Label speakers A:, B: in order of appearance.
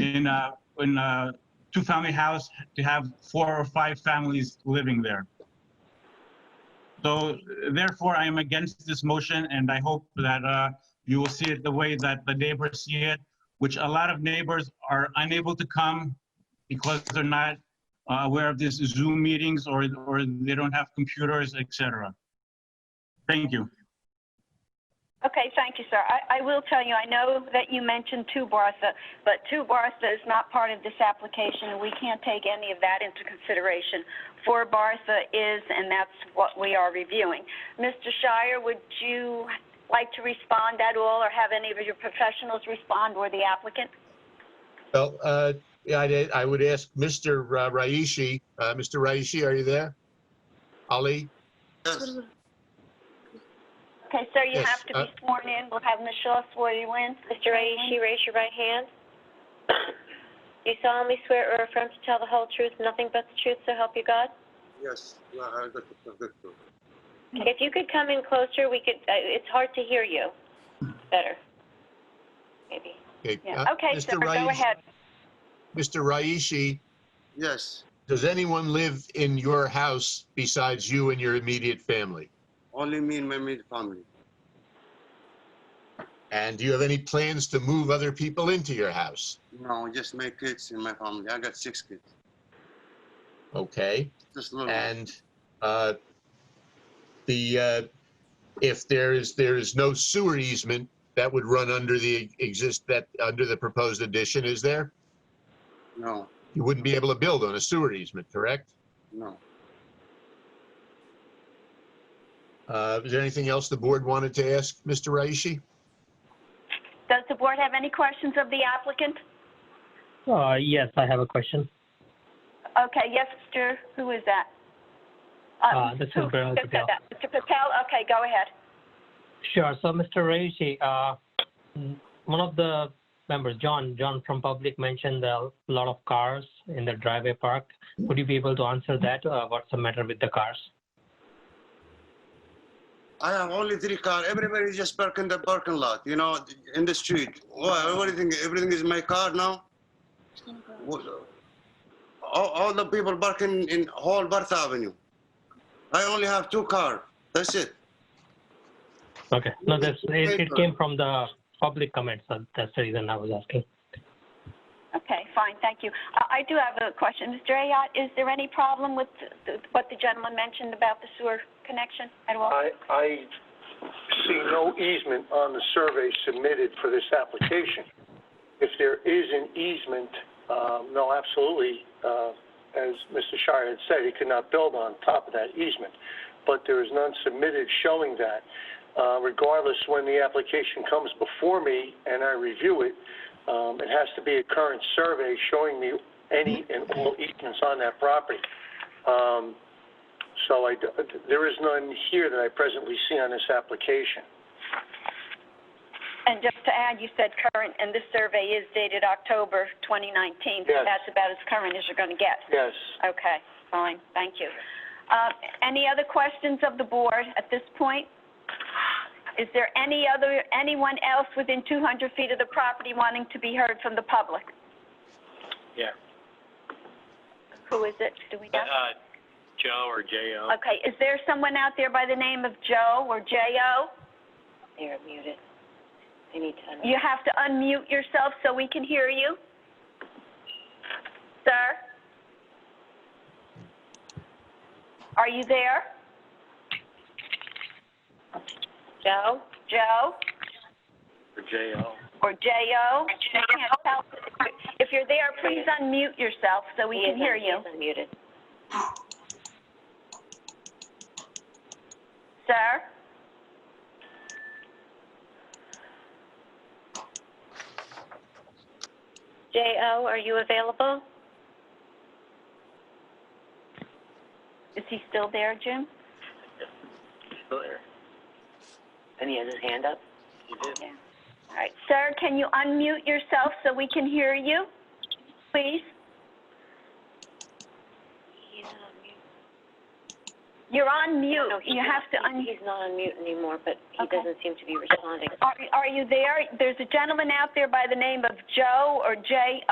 A: a, in a two-family house to have four or five families living there. So therefore, I am against this motion, and I hope that uh, you will see it the way that the neighbors see it, which a lot of neighbors are unable to come because they're not uh, aware of these Zoom meetings or, or they don't have computers, etc. Thank you.
B: Okay, thank you, sir. I, I will tell you, I know that you mentioned Two Bartha, but Two Bartha is not part of this application, and we can't take any of that into consideration. Four Bartha is, and that's what we are reviewing. Mr. Shire, would you like to respond at all, or have any of your professionals respond, or the applicant?
C: Well, uh, yeah, I, I would ask Mr. Ra- Raishi, uh, Mr. Raishi, are you there? Ali?
B: Okay, sir, you
C: Yes,
B: have to be
C: uh,
B: sworn in. We'll have Ms. Shaw swear you in.
D: Mr. Aishi, raise your right hand. Do you solemnly swear or affirm to tell the whole truth, nothing but the truth, so help you God?
E: Yes, yeah, I got it, I got it.
D: If you could come in closer, we could, uh, it's hard to hear you better, maybe.
B: Yeah,
C: uh,
B: okay,
C: Mr.
B: sir, go
C: Raishi-
B: ahead.
C: Mr. Raishi,
E: Yes,
C: does anyone live in your house besides you and your immediate family?
E: only me and my immediate family.
C: And do you have any plans to move other people into your house?
E: No, just my kids and my family. I got six kids.
C: Okay,
E: Just little.
C: and, uh, the, uh, if there is, there is no sewer easement that would run under the exist, that, under the proposed addition, is there?
E: No,
C: You wouldn't be able to build on a sewer easement, correct?
E: no.
C: Uh, Is there anything else the board wanted to ask, Mr. Raishi?
B: Does the board have any questions of the applicant?
F: Uh, yes, I have a question.
B: Okay, yes, Mr., who is that? Um,
F: Uh, this is
B: who-
F: Viral
B: who said
F: Patel.
B: that? Mr. Patel, okay, go ahead.
F: Sure. So, Mr. Reishi, uh, mm, one of the members, John, John from Public, mentioned a lot of cars in the driveway park. Would you be able to answer that? Uh, what's the matter with the cars?
E: I have only three car. Everybody just park in the parking lot, you know, in the street. Well, everything, everything is my car now. What- All, all the people parking in whole Barth Avenue. I only have two car. That's it.
F: Okay. No, this it, it
E: Paper.
F: came from the public comments. So that's the reason I was asking.
B: Okay, fine, thank you. Uh, I I do have a question. Mr. Ayotte, is there any problem with th- what the gentleman mentioned about the sewer connection at all?
G: I, I see no easement on the survey submitted for this application. If there is an easement, um, no, absolutely, uh, as Mr. Shire had said, he could not build on top of that easement, but there is none submitted showing that. Uh, Regardless, when the application comes before me and I review it, um, it has to be a current survey showing me any and all easements on that property. Um, so I, there is none here that I presently see on this application.
B: And just to add, you said current, and this survey is dated October 2019. so
G: Yes.
B: That's about as current as you're going to get.
G: Yes.
B: Okay, fine, thank you. Uh, Any other questions of the board at this point? Is there any other, anyone else within 200 feet of the property wanting to be heard from the public?
H: Yeah.
B: Who is it? Do we know?
H: Uh, Joe or J.O.
B: Okay, is there someone out there by the name of Joe or J.O.?
D: They're muted. They need to unmute.
B: You have to unmute yourself so we can hear you. Sir? Are you there?
D: Joe?
B: Joe?
H: or J.O.
B: or J.O. I can't tell. If you're there, please unmute yourself so we
D: He
B: can
D: is
B: hear
D: un- he
B: you.
D: is unmuted.
B: Sir?
D: J.O., are you available?
B: Is he still there, Jim?
H: Still there.
D: And he has his hand up.
H: You did.
B: All right. Sir, can you unmute yourself so we can hear you, please?
D: He's not on mute.
B: You're on mute.
D: No, he's
B: You
D: not.
B: have to
D: He-
B: un,
D: He's not on mute anymore, but he
B: Okay.
D: doesn't seem to be responding.
B: are, are you there? There's a gentleman out there by the name of Joe or J.O.